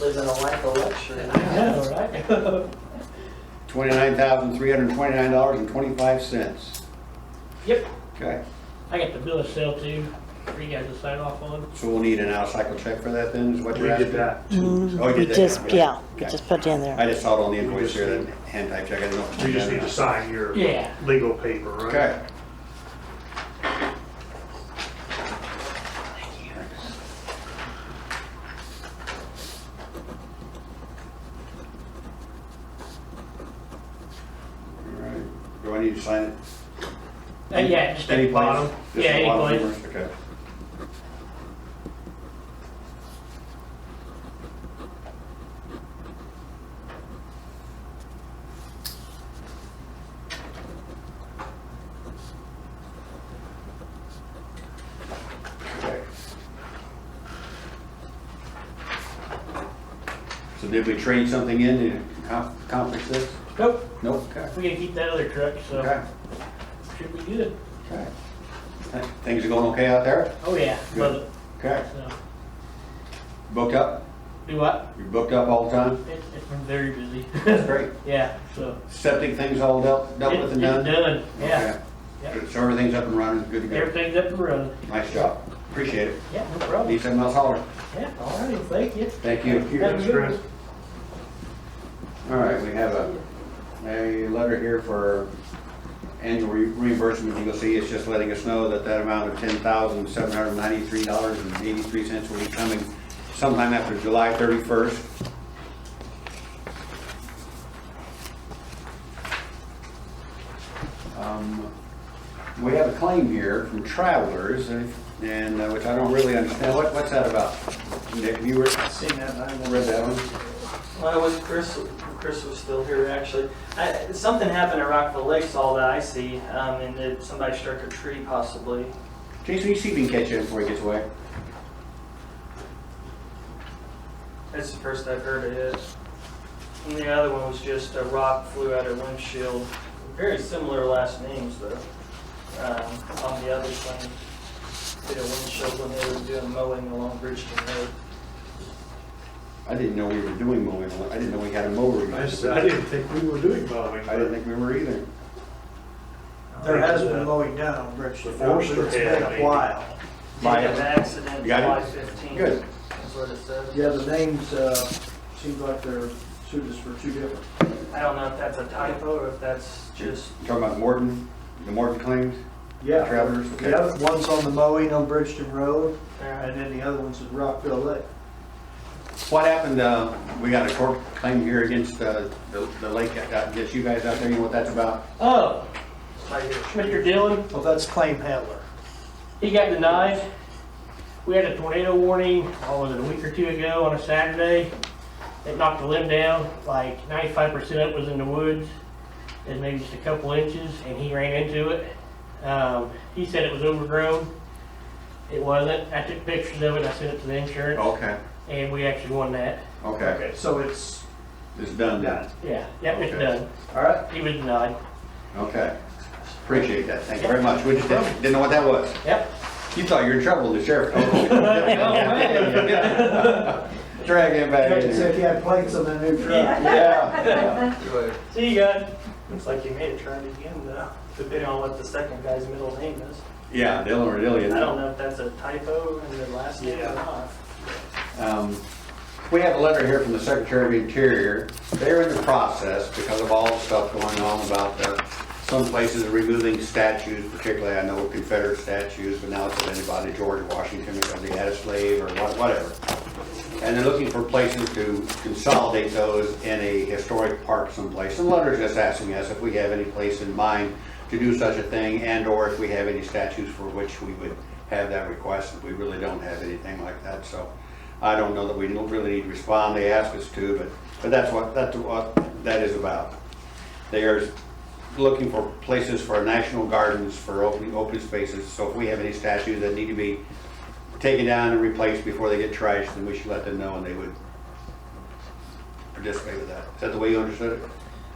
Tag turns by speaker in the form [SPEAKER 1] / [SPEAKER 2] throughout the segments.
[SPEAKER 1] living a life of luxury.
[SPEAKER 2] know, right?
[SPEAKER 3] Twenty-nine thousand, three hundred and twenty-nine dollars and twenty-five cents.
[SPEAKER 2] Yep,
[SPEAKER 3] Okay,
[SPEAKER 2] I got the bill of sale too, for you guys to sign off on.
[SPEAKER 3] so we'll need an out-of-cycle check for that then, is what
[SPEAKER 4] We
[SPEAKER 3] you're
[SPEAKER 4] did
[SPEAKER 3] asking?
[SPEAKER 4] that.
[SPEAKER 3] Oh, you
[SPEAKER 5] We
[SPEAKER 3] did that
[SPEAKER 5] just,
[SPEAKER 3] now,
[SPEAKER 5] yeah, we
[SPEAKER 3] Okay.
[SPEAKER 5] just put it in there.
[SPEAKER 3] I just saw it on the invoice here, that hand type check, I didn't know. if
[SPEAKER 4] We just
[SPEAKER 3] you
[SPEAKER 4] need
[SPEAKER 3] had
[SPEAKER 4] to
[SPEAKER 3] it or not.
[SPEAKER 4] sign your
[SPEAKER 2] Yeah.
[SPEAKER 4] legal paper, right?
[SPEAKER 3] Okay. All right. Do I need to sign it?
[SPEAKER 2] Uh, yeah, just at
[SPEAKER 3] Any
[SPEAKER 2] the
[SPEAKER 3] place?
[SPEAKER 2] bottom.
[SPEAKER 3] Just
[SPEAKER 2] Yeah,
[SPEAKER 3] the
[SPEAKER 2] any
[SPEAKER 3] bottom
[SPEAKER 2] place.
[SPEAKER 3] somewhere? Okay. Okay. So did we trade something in to com- accomplish this?
[SPEAKER 2] Nope,
[SPEAKER 3] Nope. Okay.
[SPEAKER 2] we gotta keep that other truck, so
[SPEAKER 3] Okay.
[SPEAKER 2] should be good.
[SPEAKER 3] Okay. Th- Things are going okay out there?
[SPEAKER 2] Oh, yeah, love
[SPEAKER 3] Good.
[SPEAKER 2] it.
[SPEAKER 3] Okay.
[SPEAKER 2] So,
[SPEAKER 3] Booked up?
[SPEAKER 2] Do what?
[SPEAKER 3] You're booked up all the time?
[SPEAKER 2] It's, it's been very busy.
[SPEAKER 3] That's great.
[SPEAKER 2] Yeah, so.
[SPEAKER 3] Septic things all dealt, dealt
[SPEAKER 2] It-
[SPEAKER 3] with and
[SPEAKER 2] It's
[SPEAKER 3] done?
[SPEAKER 2] done, yeah.
[SPEAKER 3] Okay.
[SPEAKER 2] Yep.
[SPEAKER 3] So everything's up and running, good to go?
[SPEAKER 2] Everything's up and running.
[SPEAKER 3] Nice job. Appreciate it.
[SPEAKER 2] Yeah, no problem.
[SPEAKER 3] Need something else, holler.
[SPEAKER 2] Yeah, all right, thank you.
[SPEAKER 3] Thank you.
[SPEAKER 4] Yes, Chris.
[SPEAKER 3] All right, we have a, a letter here for annual re- reimbursement. You'll see it's just letting us know that that amount of ten thousand, seven hundred and ninety-three dollars and eighty-three cents will be coming sometime after July thirty-first. Um, We have a claim here from travelers, and, and, uh, which I don't really understand. What, what's that about? Nick, you were,
[SPEAKER 1] Seen that nine
[SPEAKER 3] read that one?
[SPEAKER 1] Well, I was, Chris, Chris was still here, actually. I, something happened at Rockville Lakes, all that I see, um, and that somebody struck a tree possibly.
[SPEAKER 3] Jason, you see if you can catch him before he gets away.
[SPEAKER 1] That's the first I've heard of it. And the other one was just a rock flew out her windshield. Very similar last names though, um, on the other thing. Did a windshield when they were doing mowing along Bridgeton Road.
[SPEAKER 3] I didn't know we were doing mowing. I didn't know we had a mower.
[SPEAKER 4] I said, I didn't think we were doing mowing.
[SPEAKER 3] uh, I didn't think we were either.
[SPEAKER 6] There has been mowing down on Bridge Street.
[SPEAKER 4] Before, sure.
[SPEAKER 6] It's been a while.
[SPEAKER 1] Did
[SPEAKER 3] By-
[SPEAKER 1] have an accident
[SPEAKER 3] You got it?
[SPEAKER 1] July 15th.
[SPEAKER 3] Good.
[SPEAKER 1] That's what it says.
[SPEAKER 6] Yeah, the names, uh, seems like they're suited for two different.
[SPEAKER 1] I don't know if that's a typo or if that's just,
[SPEAKER 3] You Talking about Morton, the Morton claims?
[SPEAKER 6] Yeah.
[SPEAKER 3] Travelers, okay.
[SPEAKER 6] The other one's on the mowing on Bridgeton Road, and
[SPEAKER 1] uh,
[SPEAKER 6] then the other one's at Rockville Lake.
[SPEAKER 3] What happened, uh, we got a court claim here against, uh, the, the lake, that got- against you guys out there. You know what that's about?
[SPEAKER 2] Oh,
[SPEAKER 1] by your
[SPEAKER 2] Mr. Dillon,
[SPEAKER 6] Well, that's claim handler.
[SPEAKER 2] He got denied. We had a tornado warning, oh, was it a week or two ago on a Saturday? It knocked a limb down, like ninety-five percent of it was in the woods, and maybe just a couple inches, and he ran into it. Um, he said it was overgrown. It wasn't. I took pictures of it, I sent it to the insurance,
[SPEAKER 3] Okay,
[SPEAKER 2] and we actually won that.
[SPEAKER 3] okay.
[SPEAKER 6] So it's
[SPEAKER 3] It's done then.
[SPEAKER 6] done.
[SPEAKER 2] Yeah, yep, it's
[SPEAKER 3] Okay.
[SPEAKER 2] done.
[SPEAKER 6] All right.
[SPEAKER 2] He was denied.
[SPEAKER 3] Okay. Appreciate that. Thank you very much. We just didn't, didn't know what that was.
[SPEAKER 2] Yep.
[SPEAKER 3] You thought you were in trouble, the sheriff. Drag him back
[SPEAKER 6] Check
[SPEAKER 3] in
[SPEAKER 6] to see if
[SPEAKER 3] here.
[SPEAKER 6] you had plates on the new truck.
[SPEAKER 3] Yeah.
[SPEAKER 1] See you guys. Looks like you made it try it again though, depending on what the second guy's middle name is.
[SPEAKER 3] Yeah, Dylan or Dillion.
[SPEAKER 1] I don't know if that's a typo in their last name or not.
[SPEAKER 3] Um, We have a letter here from the Secretary of Interior. They're in the process, because of all the stuff going on about the, some places removing statues, particularly I know Confederate statues, but now it's of anybody, George Washington, because he had a slave or what- whatever. And they're looking for places to consolidate those in a historic park someplace. And letters just asking us if we have any place in mind to do such a thing and/or if we have any statues for which we would have that request. We really don't have anything like that, so I don't know that we don't really need to respond. They ask us to, but, but that's what, that's what that is about. They are looking for places for national gardens, for open, open spaces. So if we have any statues that need to be taken down and replaced before they get trashed, then we should let them know and they would participate with that. Is that the way you understood it?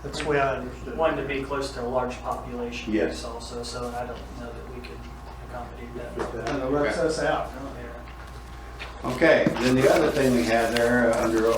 [SPEAKER 6] That's the way I understood. it.
[SPEAKER 1] Wanted to be close to a large population
[SPEAKER 3] Yes.
[SPEAKER 1] base also, so I don't know that we could accommodate that.
[SPEAKER 6] And it lets us out.
[SPEAKER 1] Yeah.
[SPEAKER 3] Okay, then the other thing we have there uh, under